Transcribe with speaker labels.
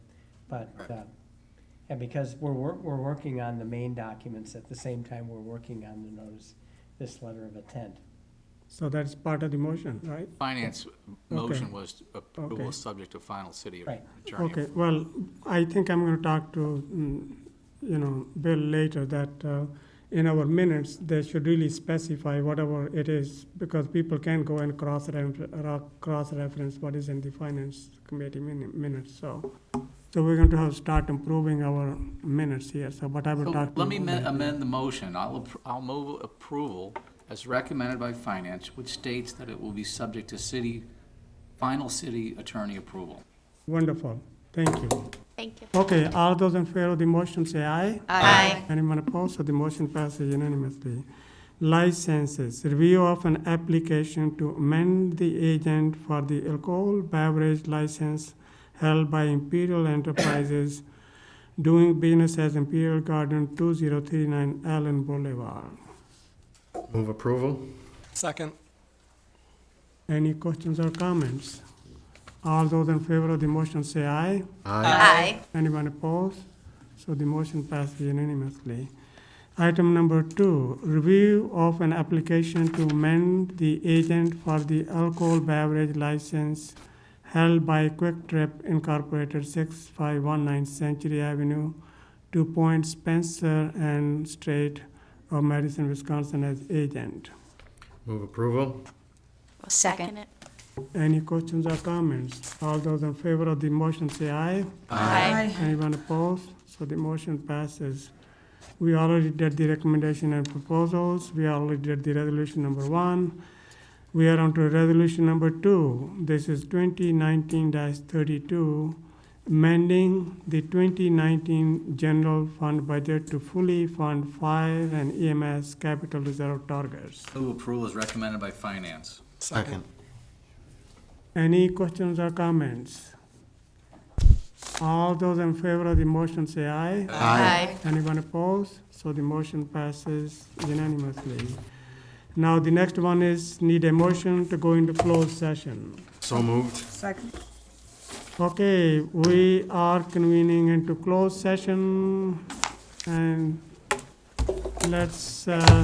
Speaker 1: But,
Speaker 2: Right.
Speaker 1: uh, and because we're, wor- we're working on the main documents at the same time we're working on the notice, this letter of intent.
Speaker 3: So that's part of the motion, right?
Speaker 2: Finance motion was approval
Speaker 3: Okay.
Speaker 2: subject to final city
Speaker 1: Right.
Speaker 2: attorney.
Speaker 3: Okay, well, I think I'm gonna talk to, mm, you know, Bill later that uh, in our minutes, they should really specify whatever it is because people can go and cross-reference, cross-reference what is in the finance committee min- minutes, so. So we're going to have, start improving our minutes here, so, but I will
Speaker 2: So
Speaker 3: talk to.
Speaker 2: Let me
Speaker 3: you
Speaker 2: amend-
Speaker 3: later.
Speaker 2: amend the motion. I'll, appro- I'll move approval as recommended by finance, which states that it will be subject to city, final city attorney approval.
Speaker 3: Wonderful, thank you.
Speaker 4: Thank you.
Speaker 3: Okay, all those in favor of the motion say aye.
Speaker 4: Aye.
Speaker 3: Anyone opposed? So the motion passes unanimously. Licenses, review of an application to amend the agent for the alcohol beverage license held by Imperial Enterprises doing business as Imperial Garden, two zero three nine Allen Boulevard.
Speaker 5: Move approval?
Speaker 6: Second.
Speaker 3: Any questions or comments? All those in favor of the motion say aye.
Speaker 4: Aye.
Speaker 3: Anyone opposed? So the motion passes unanimously. Item number two, review of an application to amend the agent for the alcohol beverage license held by Quick Trip Incorporated, 6519 Century Avenue, Two Point Spencer and Strait of Madison, Wisconsin as agent.
Speaker 5: Move approval?
Speaker 4: I'll Second it.
Speaker 3: Any questions or comments? All those in favor of the motion say aye.
Speaker 4: Aye.
Speaker 3: Anyone opposed? So the motion passes. We already did the recommendation and proposals. We already did the resolution number one. We are on to resolution number two. This is twenty nineteen thirty-two, amending the twenty nineteen general fund budget to fully fund fire and EMS capital reserve targets.
Speaker 2: Move approval as recommended by finance.
Speaker 5: Second.
Speaker 3: Any questions or comments? All those in favor of the motion say aye.
Speaker 4: Aye.
Speaker 3: Anyone opposed? So the motion passes unanimously. Now, the next one is need a motion to go into closed session.
Speaker 5: So moved?
Speaker 3: Okay, we are convening into closed session, and let's, uh,